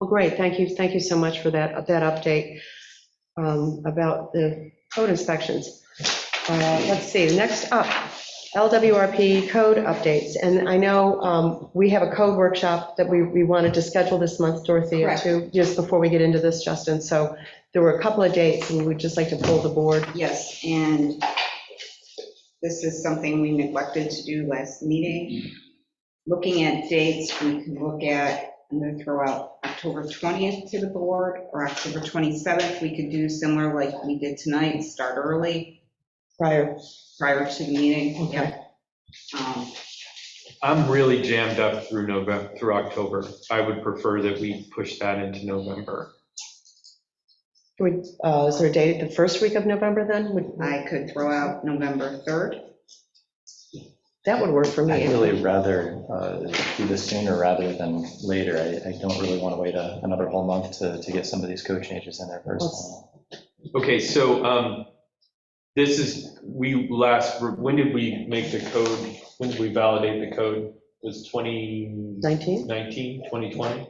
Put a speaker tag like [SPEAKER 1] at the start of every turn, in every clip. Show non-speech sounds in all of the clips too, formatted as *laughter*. [SPEAKER 1] Well, great, thank you, thank you so much for that, that update um, about the code inspections. Uh, Let's see, next up, LWRP code updates, and I know um, we have a code workshop that we, we wanted to schedule this month, Dorothea,
[SPEAKER 2] Correct.
[SPEAKER 1] too, just before we get into this, Justin, so there were a couple of dates, and we'd just like to pull the board.
[SPEAKER 2] Yes, and this is something we neglected to do last meeting. Looking at dates, we can look at, I'm going to throw out October 20th to the board, or October 27th. We could do similar like we did tonight, start early
[SPEAKER 1] Prior.
[SPEAKER 2] prior to the meeting.
[SPEAKER 1] Okay.
[SPEAKER 2] Yep. Um,
[SPEAKER 3] I'm really jammed up through November, through October. I would prefer that we push that into November.
[SPEAKER 1] Can we, uh, Is there a date, the first week of November, then? Would-
[SPEAKER 2] I could throw out November 3rd.
[SPEAKER 1] That would work for me.
[SPEAKER 4] I'd really rather uh, do this sooner rather than later. I I don't really want to wait a- another whole month to to get some of these code changes in there first.
[SPEAKER 3] Okay, so um, this is, we last, when did we make the code? When did we validate the code? Was 2019,
[SPEAKER 1] 19?
[SPEAKER 3] 2020?
[SPEAKER 2] 29th.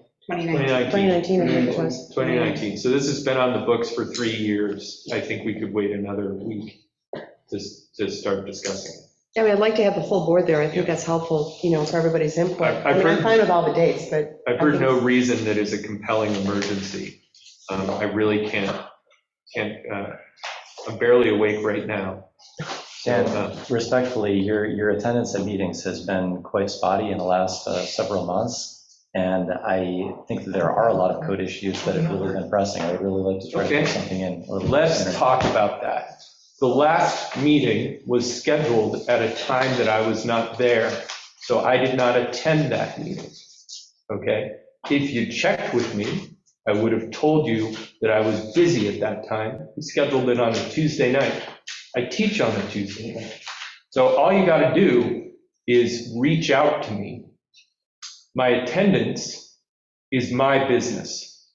[SPEAKER 3] 2019.
[SPEAKER 1] 2019, I think it was.
[SPEAKER 3] 2019. So this has been on the books for three years. I think we could wait another week to, to start discussing. it.
[SPEAKER 1] I mean, I'd like to have the full board there, I think that's helpful, you know, for everybody's input.
[SPEAKER 3] I- I've
[SPEAKER 1] I mean, I'm
[SPEAKER 3] heard-
[SPEAKER 1] fine with all the dates, but
[SPEAKER 3] I've heard no reason that is a compelling emergency. Um, I really can't, can't, uh, I'm barely awake right now. So,
[SPEAKER 4] And
[SPEAKER 3] uh,
[SPEAKER 4] respectfully, your your attendance at meetings has been quite spotty in the last uh, several months. And I think that there are a lot of code issues that have really been pressing. I'd really like to try to
[SPEAKER 3] Okay.
[SPEAKER 4] put something in. a little bit
[SPEAKER 3] Let's
[SPEAKER 4] sooner.
[SPEAKER 3] talk about that. The last meeting was scheduled at a time that I was not there, so I did not attend that meeting. Okay? If you checked with me, I would have told you that I was busy at that time. We scheduled it on a Tuesday night. I teach on a Tuesday night. So all you got to do is reach out to me. My attendance is my business.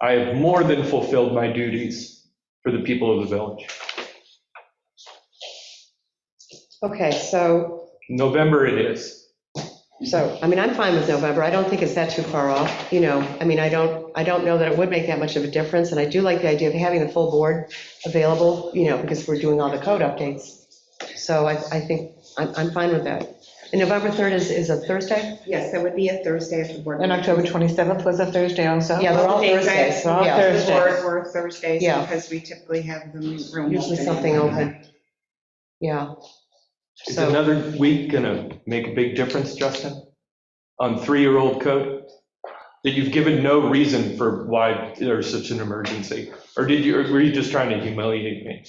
[SPEAKER 3] I have more than fulfilled my duties for the people of the village.
[SPEAKER 1] Okay, so,
[SPEAKER 3] November it is.
[SPEAKER 1] so, I mean, I'm fine with November, I don't think it's that too far off, you know, I mean, I don't, I don't know that it would make that much of a difference, and I do like the idea of having the full board available, you know, because we're doing all the code updates. So I, I think, I'm, I'm fine with that. And November 3rd is, is a Thursday?
[SPEAKER 2] Yes, that would be a Thursday at the board.
[SPEAKER 5] And October 27th was a Thursday also?
[SPEAKER 1] Yeah, they're all
[SPEAKER 2] Thursdays.
[SPEAKER 1] Thursdays,
[SPEAKER 5] They're all
[SPEAKER 1] yeah.
[SPEAKER 2] The
[SPEAKER 5] Thursday.
[SPEAKER 2] board were Thursdays
[SPEAKER 1] Yeah.
[SPEAKER 2] because we typically have the room.
[SPEAKER 1] Usually
[SPEAKER 2] open.
[SPEAKER 1] something open. Yeah.
[SPEAKER 3] Is
[SPEAKER 1] So-
[SPEAKER 3] another week going to make a big difference, Justin? On three-year-old code? That you've given no reason for why there's such an emergency? Or did you, or were you just trying to humiliate me?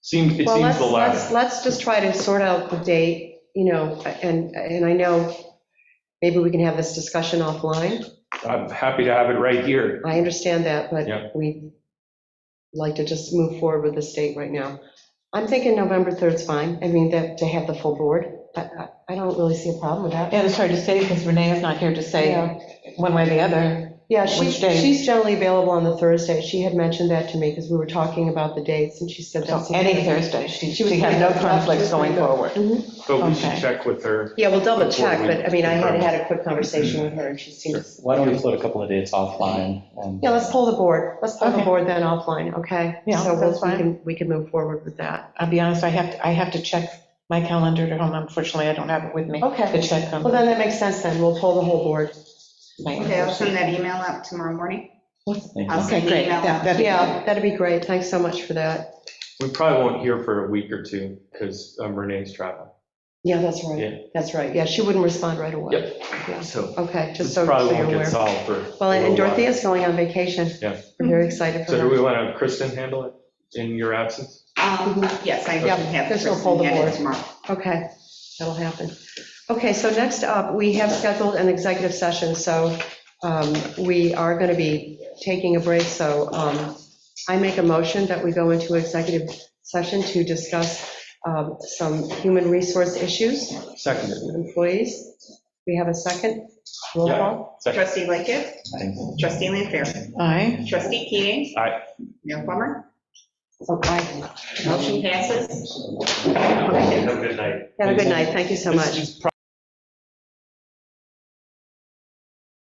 [SPEAKER 3] Seems, it
[SPEAKER 1] Well,
[SPEAKER 3] seems
[SPEAKER 1] let's, let's,
[SPEAKER 3] the latter.
[SPEAKER 1] let's just try to sort out the date, you know, and, and I know maybe we can have this discussion offline.
[SPEAKER 3] I'm happy to have it right here.
[SPEAKER 1] I understand that,
[SPEAKER 3] Yeah.
[SPEAKER 1] but we like to just move forward with this date right now. I'm thinking November 3rd's fine. I mean, that, to have the full board. I, I- I don't really see a problem with that.
[SPEAKER 5] And it's hard to say because Renee is not here to say
[SPEAKER 1] Yeah.
[SPEAKER 5] one way or the other.
[SPEAKER 1] Yeah, she's,
[SPEAKER 5] Which day?
[SPEAKER 1] she's generally available on the Thursday. She had mentioned that to me because we were talking about the dates and she said
[SPEAKER 5] So
[SPEAKER 1] that's.
[SPEAKER 5] any Thursday, she,
[SPEAKER 1] She was
[SPEAKER 5] she had no
[SPEAKER 1] kind of-
[SPEAKER 5] conflicts going forward.
[SPEAKER 1] Mhm.
[SPEAKER 3] But we should
[SPEAKER 5] Okay.
[SPEAKER 3] check with her.
[SPEAKER 1] Yeah, we'll double
[SPEAKER 3] Before
[SPEAKER 1] check,
[SPEAKER 3] we-
[SPEAKER 1] but I mean, I had had a quick
[SPEAKER 3] *clears throat*
[SPEAKER 1] conversation with her, and she seemed,
[SPEAKER 4] Why don't we float a couple of dates offline? and- uh,
[SPEAKER 1] yeah, let's pull the board, let's pull the
[SPEAKER 5] Okay.
[SPEAKER 1] board then offline, okay?
[SPEAKER 5] Yeah,
[SPEAKER 1] So we'll-
[SPEAKER 5] that's
[SPEAKER 1] we
[SPEAKER 5] fine.
[SPEAKER 1] can, we can move forward with that.
[SPEAKER 5] I'll be honest, I have, to I have to check my calendar at home. Unfortunately, I don't have it with me
[SPEAKER 1] Okay,
[SPEAKER 5] to check on
[SPEAKER 1] well, then that makes sense then, we'll pull the whole board.
[SPEAKER 5] my.
[SPEAKER 2] Okay, I'll send that email out tomorrow morning.
[SPEAKER 4] Thank you.
[SPEAKER 2] I'll
[SPEAKER 5] Okay,
[SPEAKER 2] send the
[SPEAKER 5] great.
[SPEAKER 2] email
[SPEAKER 5] That-
[SPEAKER 2] out.
[SPEAKER 5] that'd be
[SPEAKER 1] Yeah, that'd be great, thanks so much for that.
[SPEAKER 3] We probably won't hear for a week or two because Renee's traveling.
[SPEAKER 1] Yeah, that's
[SPEAKER 3] Yeah.
[SPEAKER 1] right, that's right, yeah, she wouldn't respond right away.
[SPEAKER 3] Yep.
[SPEAKER 1] Yeah.
[SPEAKER 3] So
[SPEAKER 1] Okay, just
[SPEAKER 3] this
[SPEAKER 1] so so
[SPEAKER 3] probably
[SPEAKER 1] you're
[SPEAKER 3] won't get
[SPEAKER 1] aware.
[SPEAKER 3] solved for. a
[SPEAKER 1] Well, and
[SPEAKER 3] little while.
[SPEAKER 1] Dorothea's going on vacation.
[SPEAKER 3] Yeah.
[SPEAKER 1] We're very excited for
[SPEAKER 3] So do
[SPEAKER 1] her.
[SPEAKER 3] we want to have Kristen handle it in your absence?
[SPEAKER 2] Um, Yes, I
[SPEAKER 1] Yeah,
[SPEAKER 2] can have
[SPEAKER 1] there's no pull
[SPEAKER 2] Kristen
[SPEAKER 1] the
[SPEAKER 2] get
[SPEAKER 1] board.
[SPEAKER 2] it tomorrow.
[SPEAKER 1] Okay, that'll happen. Okay, so next up, we have scheduled an executive session, so um, we are going to be taking a break, so um, I make a motion that we go into executive session to discuss um, some human resource issues
[SPEAKER 3] Seconded.
[SPEAKER 1] with employees. We have a second? Roll call?
[SPEAKER 3] Second.
[SPEAKER 2] Trustee Lickett,
[SPEAKER 4] Thank you.
[SPEAKER 2] trustee Lanfair,
[SPEAKER 5] Aye.
[SPEAKER 2] trustee Keating.
[SPEAKER 3] Aye.
[SPEAKER 2] Mayor Plummer,
[SPEAKER 1] Okay.
[SPEAKER 2] motion passes.
[SPEAKER 3] Have a good night.
[SPEAKER 1] Have a good night, thank you so much.
[SPEAKER 3] This is